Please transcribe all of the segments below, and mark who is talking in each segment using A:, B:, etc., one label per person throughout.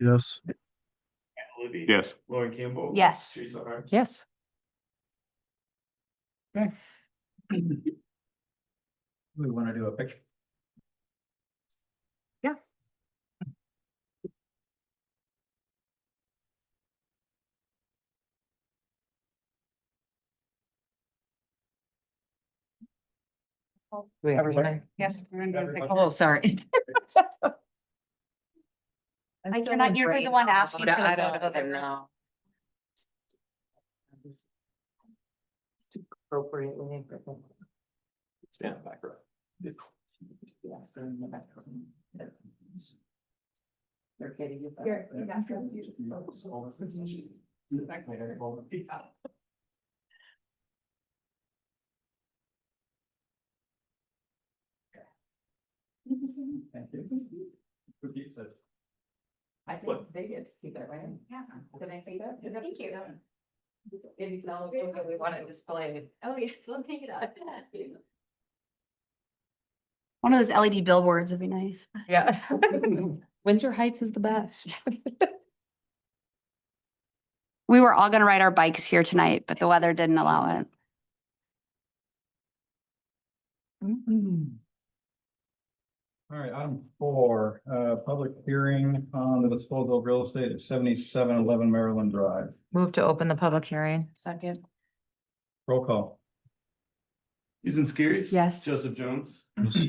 A: Yes.
B: Libby.
C: Yes.
B: Lauren Campbell.
D: Yes.
B: Teresa Harms.
D: Yes.
E: We wanna do a picture.
D: Yeah.
E: Everyone?
D: Yes. we're gonna do a pic-
E: Everybody.
D: Oh, sorry.
F: I'm
D: Like,
F: still
D: You're not,
F: in
D: you're the
F: brain
D: one
F: fog.
D: asking for
F: I
D: the
F: don't
D: photo. uh,
F: even
D: They're
F: know.
D: not.
F: It's too appropriate when you go.
B: Stand in the back row.
F: Yes, they're in the back room. They're getting you. back.
E: Here, you got them. Thank you. Repeat that.
F: I think they get to keep that, right? Yeah. Did I think that? Thank you. It's all over, but we want to display it. Oh, yes, we'll take it up.
D: One of those LED billboards would be nice.
F: Yeah. Windsor Heights is the best.
D: We were all gonna ride our bikes here tonight, but the weather didn't allow it.
E: All right, item four, uh, public hearing on the disposal of real estate at seventy-seven eleven Maryland Drive.
F: Move to open the public hearing. Second.
E: Roll call.
B: Susan Skiris.
F: Yes.
B: Joseph Jones.
A: Yes.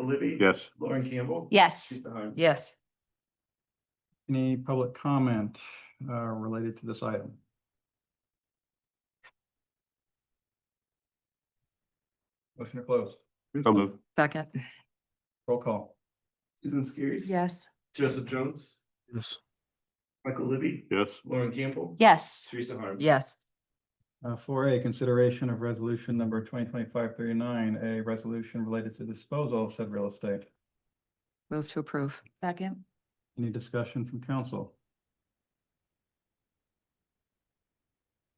B: Libby.
C: Yes.
B: Lauren Campbell.
D: Yes,
B: Teresa Harms.
F: Yes.
E: Any public comment, uh, related to this item? Motion to close.
C: So move.
F: Second.
E: Roll call.
B: Susan Skiris.
F: Yes.
B: Joseph Jones.
A: Yes.
B: Michael Libby.
C: Yes.
B: Lauren Campbell.
D: yes,
B: Teresa Harms.
F: Yes.
E: Uh, four A, consideration of resolution number 2025-39, a resolution related to disposal of said real estate.
F: Move to approve. Second.
E: Any discussion from council?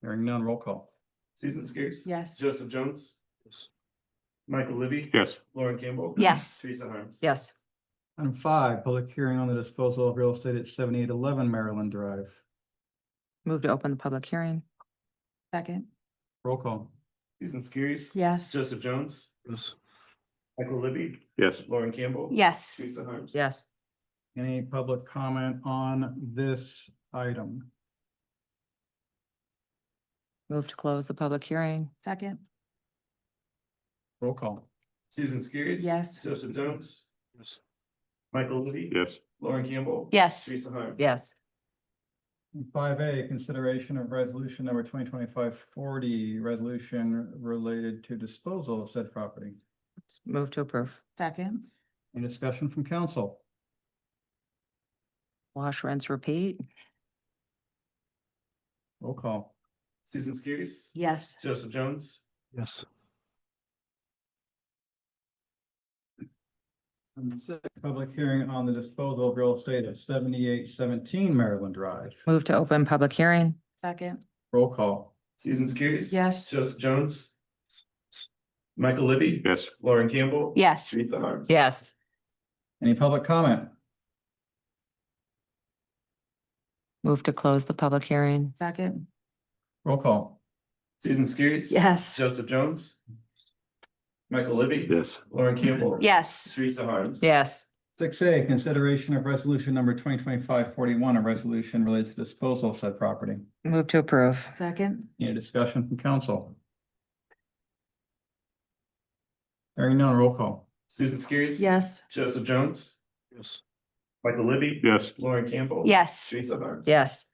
E: Hearing none, roll call.
B: Susan Skiris.
F: Yes.
B: Joseph Jones.
A: Yes.
B: Michael Libby.
C: Yes.
B: Lauren Campbell.
D: yes,
B: Teresa Harms.
F: Yes.
E: Item five, public hearing on the disposal of real estate at seventy-eight eleven Maryland Drive.
F: Move to open the public hearing. Second.
E: Roll call.
B: Susan Skiris.
F: Yes.
B: Joseph Jones.
A: Yes.
B: Michael Libby.
C: Yes.
B: Lauren Campbell.
D: yes.
B: Teresa Harms.
F: Yes.
E: Any public comment on this item?
F: Move to close the public hearing. Second.
E: Roll call.
B: Susan Skiris.
F: Yes.
B: Joseph Jones.
A: Yes.
B: Michael Libby.
C: Yes.
B: Lauren Campbell.
D: Yes,
B: Teresa Harms.
F: Yes.
E: Five A, consideration of resolution number 2025 40, resolution related to disposal of said property.
F: Move to approve. Second.
E: Any discussion from council?
F: Wash, rinse, repeat.
E: Roll call.
B: Susan Skiris.
F: Yes.
B: Joseph Jones.
A: Yes.
E: Item six, Public hearing on the disposal of real estate at seventy-eight seventeen Maryland Drive.
F: Move to open public hearing. Second.
E: Roll call.
B: Susan Skiris.
F: Yes.
B: Joseph Jones. Michael Libby.
C: Yes.
B: Lauren Campbell.
D: yes,
B: Teresa Harms.
F: Yes.
E: Any public comment?
F: Move to close the public hearing. Second.
E: Roll call.
B: Susan Skiris.
F: Yes.
B: Joseph Jones. Michael Libby.
C: Yes.
B: Lauren Campbell.
D: yes,
B: Teresa Harms.
F: Yes.
E: Six A, consideration of resolution number 2025-41, a resolution related to disposal of said property.
F: Move to approve. Second.
E: Any discussion from council? Hearing none, roll call.
B: Susan Skiris.
F: Yes.
B: Joseph Jones.
A: Yes.
B: Michael Libby.
C: Yes.
B: Lauren Campbell.
D: yes,
B: Teresa Harms.
F: Yes.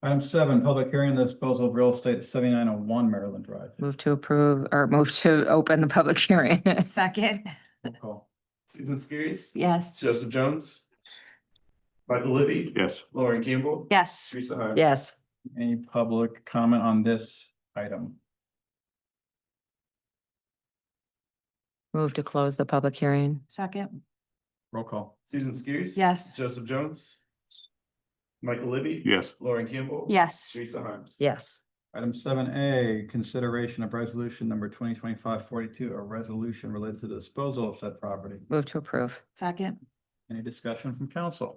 E: Item seven, public hearing on the disposal of real estate at seventy-nine oh one Maryland Drive.
F: Move to approve or move to open the public hearing. Second.
E: Roll call.
B: Susan Skiris.
F: Yes.
B: Joseph Jones. Michael Libby.
C: Yes.
B: Lauren Campbell.
D: yes.
B: Teresa Harms.
F: Yes.
E: Any public comment on this item?
F: Move to close the public hearing. Second.
E: Roll call.
B: Susan Skiris.
F: Yes.
B: Joseph Jones. Michael Libby.
C: Yes.
B: Lauren Campbell.
D: Yes.
B: Teresa Harms.
F: Yes.
E: Item seven A, consideration of resolution number 2025-42, a resolution related to the disposal of said property.
F: Move to approve. Second.
E: Any discussion from council?